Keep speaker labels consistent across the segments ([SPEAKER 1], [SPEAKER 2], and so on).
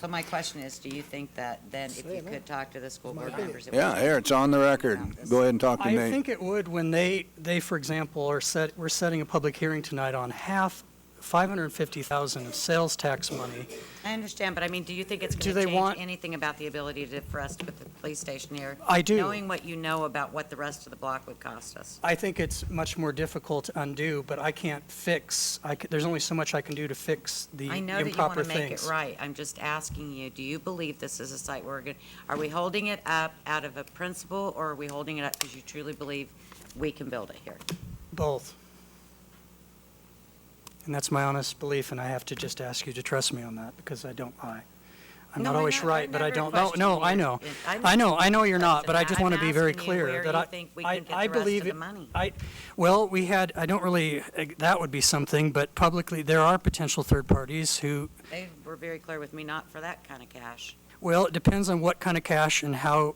[SPEAKER 1] So my question is, do you think that then if you could talk to the school board members? it would-
[SPEAKER 2] Yeah, here, it's on the record. Go ahead and talk to
[SPEAKER 3] I
[SPEAKER 2] Nate.
[SPEAKER 3] think it would when they, they, for example, are set, we're setting a public hearing tonight on half, 550,000 of sales tax money.
[SPEAKER 1] I understand, but I mean, do you think it's going to
[SPEAKER 3] Do they
[SPEAKER 1] change
[SPEAKER 3] want-
[SPEAKER 1] anything about the ability to, for us to put the police station here?
[SPEAKER 3] I do.
[SPEAKER 1] Knowing what you know about what the rest of the block would cost us.
[SPEAKER 3] I think it's much more difficult to undo, but I can't fix, I, c- there's only so much I can do to fix the
[SPEAKER 1] I know that you want
[SPEAKER 3] improper
[SPEAKER 1] to make it
[SPEAKER 3] things.
[SPEAKER 1] right. I'm just asking you, do you believe this is a site we're going, are we holding it up out of a principle or are we holding it up because you truly believe we can build it here?
[SPEAKER 3] Both. And that's my honest belief, and I have to just ask you to trust me on that, because I don't lie. I'm
[SPEAKER 1] No,
[SPEAKER 3] not
[SPEAKER 1] I'm
[SPEAKER 3] always
[SPEAKER 1] not-
[SPEAKER 3] right,
[SPEAKER 1] I'm
[SPEAKER 3] but I
[SPEAKER 1] never
[SPEAKER 3] don't, no, no,
[SPEAKER 1] questioning
[SPEAKER 3] I
[SPEAKER 1] you.
[SPEAKER 3] know.
[SPEAKER 1] I'm-
[SPEAKER 3] I know, I know you're not, but I just
[SPEAKER 1] I'm
[SPEAKER 3] want to be very
[SPEAKER 1] asking you
[SPEAKER 3] clear
[SPEAKER 1] where
[SPEAKER 3] that
[SPEAKER 1] you
[SPEAKER 3] I,
[SPEAKER 1] think we
[SPEAKER 3] I,
[SPEAKER 1] can get
[SPEAKER 3] I
[SPEAKER 1] the rest of
[SPEAKER 3] believe.
[SPEAKER 1] the
[SPEAKER 3] it-
[SPEAKER 1] money.
[SPEAKER 3] I, well, we had, I don't really, eh, that would be something, but publicly, there are potential third parties who,
[SPEAKER 1] They were very clear with me, not for that kind of cash.
[SPEAKER 3] well, it depends on what kind of cash and how,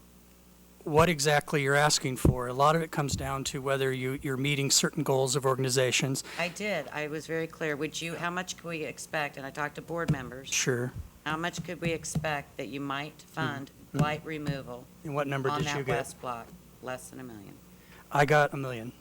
[SPEAKER 3] what exactly you're asking for. A lot of it comes down to whether you, you're meeting certain goals of organizations.
[SPEAKER 1] I did. I was very clear. Would you, how much could we expect? And I talked to board members.
[SPEAKER 3] Sure.
[SPEAKER 1] How much could we expect that you might fund blight removal
[SPEAKER 3] And what number
[SPEAKER 1] on
[SPEAKER 3] did you
[SPEAKER 1] that
[SPEAKER 3] get?
[SPEAKER 1] west block? Less than a million.
[SPEAKER 3] I got a million.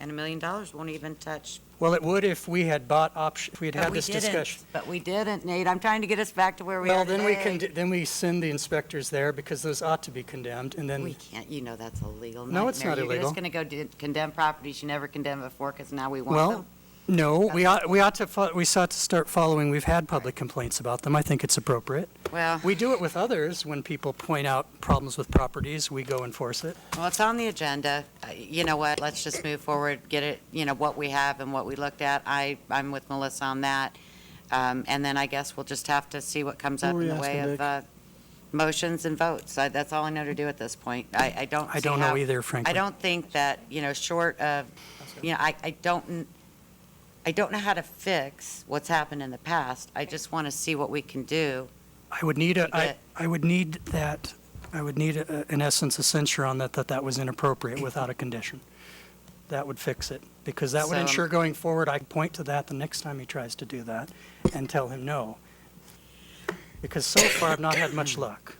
[SPEAKER 1] And a million dollars won't even touch.
[SPEAKER 3] Well, it would if we had bought option, if we had
[SPEAKER 1] But
[SPEAKER 3] had
[SPEAKER 1] we
[SPEAKER 3] this discussion.
[SPEAKER 1] didn't. But we didn't, Nate. I'm trying to get us back to where we
[SPEAKER 3] Well,
[SPEAKER 1] are
[SPEAKER 3] then we can,
[SPEAKER 1] today.
[SPEAKER 3] d- then we send the inspectors there because those ought to be condemned and
[SPEAKER 1] We
[SPEAKER 3] then,
[SPEAKER 1] can't, you know that's illegal.
[SPEAKER 3] No, it's
[SPEAKER 1] nightmare.
[SPEAKER 3] not
[SPEAKER 1] You're
[SPEAKER 3] illegal.
[SPEAKER 1] just going to go do- condemn properties you never condemned before because now we want them.
[SPEAKER 3] well, no, we ought, we ought to, fo- we sought to start following, we've had public complaints about them. I think it's appropriate.
[SPEAKER 1] Well,
[SPEAKER 3] We do it with others. When people point out problems with properties, we go enforce it.
[SPEAKER 1] well, it's on the agenda. Uh, You know what? Let's just move forward, get it, you know, what we have and what we looked at. I, I'm with Melissa on that. Um, And then I guess we'll just have to see what comes
[SPEAKER 4] What
[SPEAKER 1] up
[SPEAKER 4] were
[SPEAKER 1] in
[SPEAKER 4] you
[SPEAKER 1] the way
[SPEAKER 4] asking,
[SPEAKER 1] of uh, motions and votes. I- That's all I know to do at this point. I, I don't
[SPEAKER 3] I
[SPEAKER 1] see
[SPEAKER 3] don't know
[SPEAKER 1] how-
[SPEAKER 3] either, frankly.
[SPEAKER 1] I don't think that, you know, short of, you know, I, I don't, n- I don't know how to fix what's happened in the past. I just want to see what we can do.
[SPEAKER 3] I would need a, I,
[SPEAKER 1] Get-
[SPEAKER 3] I would need that, I would need, a- in essence, a censure on that, that that was inappropriate without a condition. That would fix it, because that
[SPEAKER 1] So,
[SPEAKER 3] would
[SPEAKER 1] um,
[SPEAKER 3] ensure going forward, I point to that the next time he tries to do that and tell him no. Because so far, I've not had much luck.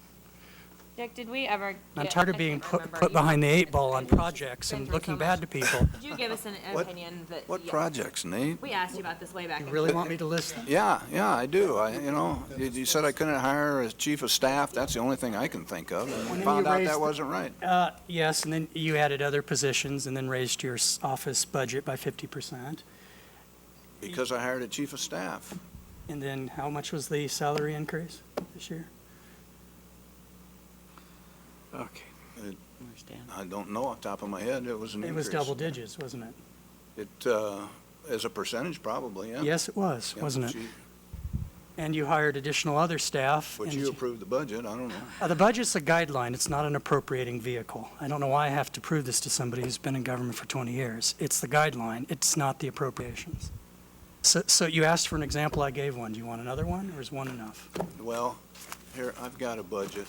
[SPEAKER 5] Dick, did we ever?
[SPEAKER 3] I'm
[SPEAKER 5] get-
[SPEAKER 3] tired
[SPEAKER 5] I
[SPEAKER 3] of being
[SPEAKER 5] can't
[SPEAKER 3] put,
[SPEAKER 5] remember.
[SPEAKER 3] put
[SPEAKER 5] You-
[SPEAKER 3] behind the eight ball on
[SPEAKER 5] It's been
[SPEAKER 3] projects and
[SPEAKER 5] through
[SPEAKER 3] looking
[SPEAKER 5] so
[SPEAKER 3] bad to
[SPEAKER 5] much.
[SPEAKER 3] people.
[SPEAKER 5] Did you give us an
[SPEAKER 2] What-
[SPEAKER 5] opinion that?
[SPEAKER 2] What
[SPEAKER 5] yeah,
[SPEAKER 2] projects, Nate?
[SPEAKER 5] We asked you about this way back.
[SPEAKER 3] You
[SPEAKER 5] in-
[SPEAKER 3] really want me to list them?
[SPEAKER 2] Yeah, yeah, I do. I, you know, you- you said I couldn't hire a chief of staff. That's the only thing I can think of. And
[SPEAKER 3] When
[SPEAKER 2] we
[SPEAKER 3] you
[SPEAKER 2] found out
[SPEAKER 3] raised
[SPEAKER 2] that
[SPEAKER 3] the-
[SPEAKER 2] wasn't right.
[SPEAKER 3] Uh, yes, and then you added other positions and then raised your s- office budget by fifty percent.
[SPEAKER 2] Because I hired a chief of staff.
[SPEAKER 3] And then how much was the salary increase this year?
[SPEAKER 4] Okay.
[SPEAKER 1] Understand.
[SPEAKER 2] I don't know off the top of my head. It was an
[SPEAKER 3] It
[SPEAKER 2] increase.
[SPEAKER 3] was double digits, wasn't it?
[SPEAKER 2] It, uh, as a percentage probably, yeah.
[SPEAKER 3] Yes, it was,
[SPEAKER 2] Yeah,
[SPEAKER 3] wasn't
[SPEAKER 2] but
[SPEAKER 3] it?
[SPEAKER 2] you-
[SPEAKER 3] And you hired additional other staff.
[SPEAKER 2] But
[SPEAKER 3] and
[SPEAKER 2] you
[SPEAKER 3] you-
[SPEAKER 2] approved the budget. I don't know.
[SPEAKER 3] Uh, The budget's a guideline, it's not an appropriating vehicle. I don't know why I have to prove this to somebody who's been in government for 20 years. It's the guideline, it's not the appropriations. So, so you asked for an example, I gave one. Do you want another one, or is one enough?
[SPEAKER 2] Well, here, I've got a budget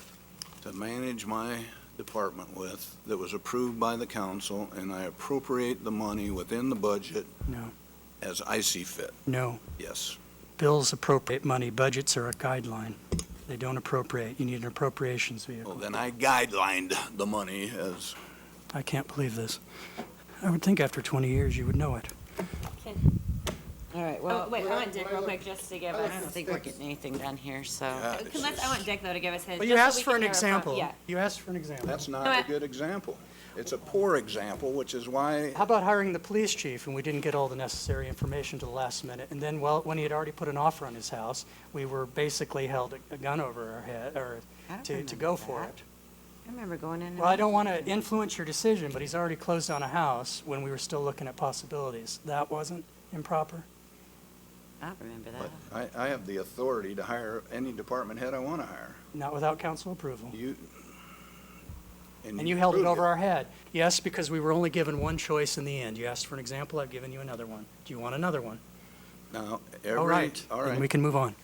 [SPEAKER 2] to manage my department with that was approved by the council and I appropriate the money within the budget
[SPEAKER 3] No,
[SPEAKER 2] as I see fit.
[SPEAKER 3] no.
[SPEAKER 2] Yes.
[SPEAKER 3] Bills appropriate money, budgets are a guideline. They don't appropriate, you need an appropriations
[SPEAKER 2] Well,
[SPEAKER 3] vehicle.
[SPEAKER 2] then I guidelined the money as
[SPEAKER 3] I can't believe this. I would think after 20 years, you would know it.
[SPEAKER 1] All right,
[SPEAKER 5] Oh,
[SPEAKER 1] well,
[SPEAKER 5] wait, I want Dick real quick just to give
[SPEAKER 1] I
[SPEAKER 5] us.
[SPEAKER 1] don't think we're getting anything done here, so.
[SPEAKER 2] Yeah.
[SPEAKER 5] Can let's- I want Dick though to give us his.
[SPEAKER 3] Well, you
[SPEAKER 5] just so
[SPEAKER 3] asked
[SPEAKER 5] we
[SPEAKER 3] for
[SPEAKER 5] can
[SPEAKER 3] an
[SPEAKER 5] hear it from-
[SPEAKER 3] example.
[SPEAKER 5] Yeah.
[SPEAKER 3] You asked for an example.
[SPEAKER 2] That's
[SPEAKER 5] No,
[SPEAKER 2] not
[SPEAKER 5] I-
[SPEAKER 2] a good example. It's a poor example, which is why,
[SPEAKER 3] How about hiring the police chief, and we didn't get all the necessary information to the last minute, and then, well, when he had already put an offer on his house, we were basically held a- a gun over our head, or
[SPEAKER 1] I don't
[SPEAKER 3] to, to
[SPEAKER 1] remember
[SPEAKER 3] go for
[SPEAKER 1] that.
[SPEAKER 3] it.
[SPEAKER 1] I remember going in. and
[SPEAKER 3] Well, I don't
[SPEAKER 1] out.
[SPEAKER 3] want to influence your decision, but he's already closed on a house when we were still looking at possibilities. That wasn't improper?
[SPEAKER 1] I don't remember that.
[SPEAKER 2] but I, I have the authority to hire any department head I want to hire.
[SPEAKER 3] Not without council approval.
[SPEAKER 2] You.
[SPEAKER 3] And you held it
[SPEAKER 2] proved
[SPEAKER 3] over our head. Yes, because we were only given one choice in the end. You asked for an example, I've given you another one. Do you want another one?
[SPEAKER 2] Now,
[SPEAKER 3] All
[SPEAKER 2] every,
[SPEAKER 3] Oh, right.
[SPEAKER 2] all
[SPEAKER 3] Then we
[SPEAKER 2] right,
[SPEAKER 3] can move on.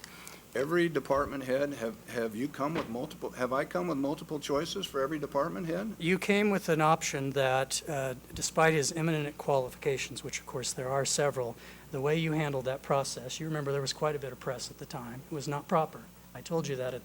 [SPEAKER 2] every department head, have, have you come with multiple, have I come with multiple choices for every department head?
[SPEAKER 3] You came with an option that uh, despite his eminent qualifications, which of course there are several, the way you handled that process, you remember there was quite a bit of press at the time, it was not proper. I told you that at